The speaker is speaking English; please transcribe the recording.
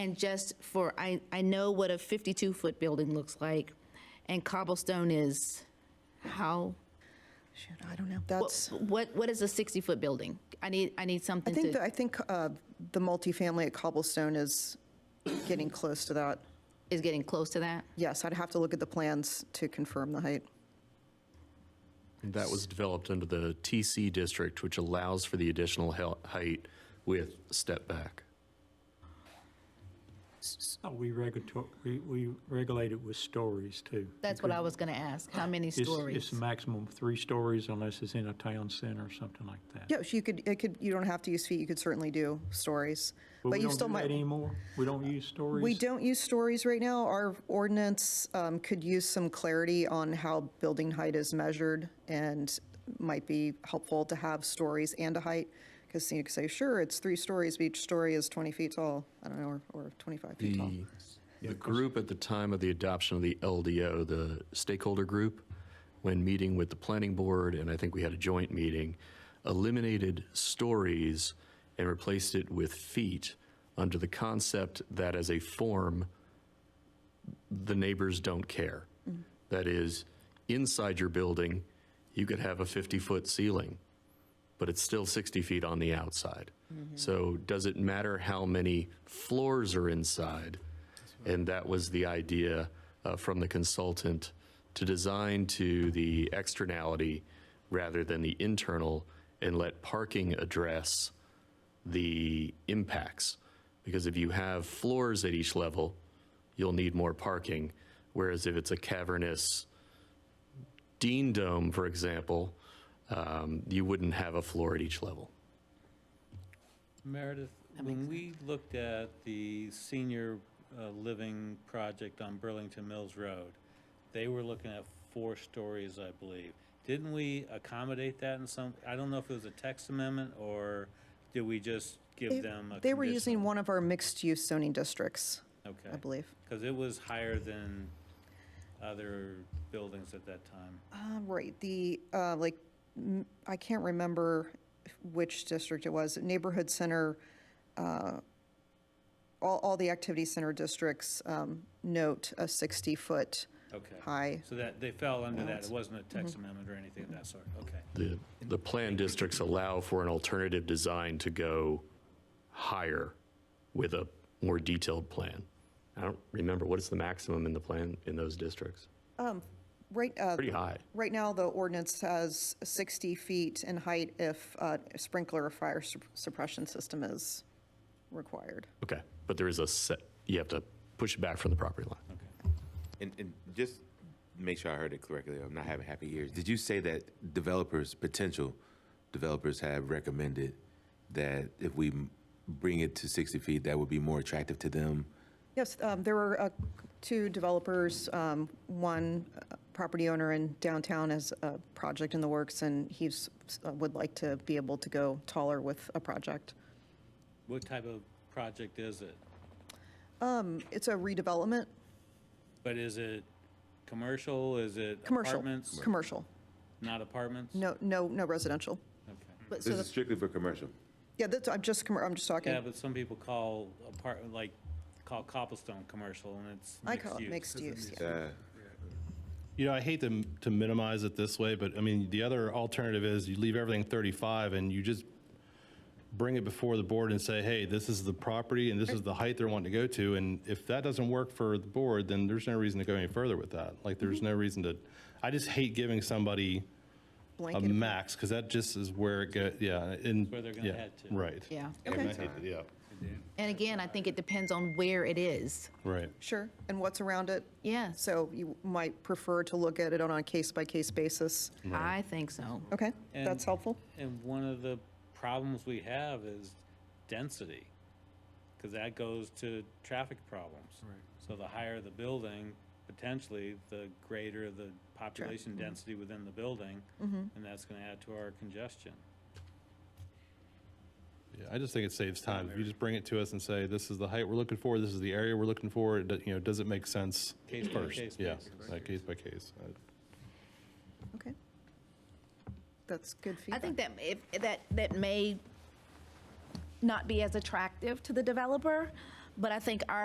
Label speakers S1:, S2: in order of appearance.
S1: And just for, I, I know what a 52-foot building looks like, and cobblestone is how,
S2: Shoot, I don't know.
S1: wha-
S2: That's,
S1: what, what is a 60-foot building? I need, I need
S2: I
S1: something
S2: think, that-
S1: to,
S2: I think uh, the multifamily at Cobblestone is getting close to that.
S1: is getting close to that?
S2: Yes, I'd have to look at the plans to confirm the height.
S3: That was developed under the TC district, which allows for the additional hel- height with step back.
S4: Oh, We regulator, we, we regulate it with stories too.
S1: That's what I was going to ask, how many
S4: It's,
S1: stories?
S4: it's a maximum of three stories unless it's in a town center or something like that.
S2: Yeah, so you could, it could, you don't have to use feet, you could certainly do stories.
S4: we
S2: But you
S4: don't
S2: still
S4: do that
S2: might,
S4: Anymore? We don't use stories?
S2: we don't use stories right now. Our ordinance um, could use some clarity on how building height is measured and might be helpful to have stories and a height. Because you could say, sure, it's three stories, but each story is 20 feet tall, I don't know, or- or 25 feet tall.
S3: The, the group at the time of the adoption of the LDO, the stakeholder group, when meeting with the planning board, and I think we had a joint meeting, eliminated stories and replaced it with feet under the concept that as a form, the neighbors don't care. That is, inside your building, you could have a 50-foot ceiling, but it's still 60 feet on the outside. So does it matter how many floors are inside? And that was the idea uh, from the consultant to design to the externality rather than the internal and let parking address the impacts. Because if you have floors at each level, you'll need more parking. Whereas if it's a cavernous Dean Dome, for example, um, you wouldn't have a floor at each level.
S5: Meredith, when we looked at the senior uh, living project on Burlington Mills Road, they were looking at four stories, I believe. Didn't we accommodate that in some, I don't know if it was a text amendment or did we just give them a
S2: They were using
S5: conditional?
S2: one of our mixed-use zoning districts, I
S5: Okay,
S2: believe.
S5: because it was higher than other buildings at that time.
S2: Uh, Right, the, uh, like, m- I can't remember which district it was, Neighborhood Center, uh, all, all the activity center districts um, note a 60-foot
S5: Okay.
S2: high. Mm-hmm.
S5: So that, they fell under that. It wasn't a text amendment or anything of that sort. Okay.
S3: The, the plan districts allow for an alternative design to go higher with a more detailed plan. I don't remember, what is the maximum in the plan in those districts?
S2: Right, uh,
S3: Pretty high.
S2: right now, the ordinance has 60 feet in height if uh, sprinkler or fire sup- suppression system is required.
S3: Okay, but there is a set, you have to push it back from the property line.
S6: And, and just make sure I heard it correctly, I'm not having happy ears. Did you say that developers, potential developers have recommended that if we m- bring it to 60 feet, that would be more attractive to them?
S2: Yes, um, there were uh, two developers, um, one uh, property owner in downtown has a project in the works, and he's, uh, would like to be able to go taller with a project.
S5: What type of project is it?
S2: Um, It's a redevelopment,
S5: But is it commercial? Is it
S2: commercial,
S5: apartments?
S2: commercial,
S5: Not apartments?
S2: no, no, no residential.
S5: Okay.
S1: But so
S6: This is
S1: the-
S6: strictly for commercial.
S2: Yeah, that's, I'm just, commer- I'm just
S5: Yeah,
S2: talking,
S5: but some people call apartment, like, call cobblestone commercial and it's
S2: I call
S5: mixed
S2: it
S5: use.
S2: mixed use, yeah.
S6: Uh,
S7: You know, I hate to, to minimize it this way, but I mean, the other alternative is you leave everything 35 and you just bring it before the board and say, hey, this is the property and this is the height they're wanting to go to. And if that doesn't work for the board, then there's no reason to go any further with that. Like, there's no reason to, I just hate giving somebody a
S2: blanket.
S7: max because that just is where it go, yeah. and-
S5: Where they're gonna
S7: yeah,
S5: head to.
S7: Right.
S1: yeah.
S7: I mean, I hate to- Yeah,
S1: And again, I think it depends on where it is.
S7: right.
S2: Sure, and what's around it?
S1: Yes,
S2: So you might prefer to look at it on a case-by-case basis.
S1: I think so.
S2: Okay, that's
S5: And-
S2: helpful.
S5: And one of the problems we have is density. Cause that goes to traffic problems. Right. So the higher the building, potentially, the greater the population density within the building.
S2: Mm-hmm.
S5: And that's gonna add to our congestion.
S7: Yeah, I just think it saves time. If you just bring it to us and say, this is the height we're looking for, this is the area we're looking for, it do- you know, does it make sense?
S5: Case by
S7: first?
S5: case
S7: Yeah,
S5: basis.
S7: like case by case. Uh,
S2: Okay. That's good
S1: I
S2: feedback.
S1: think that if, that, that may not be as attractive to the developer, But I think our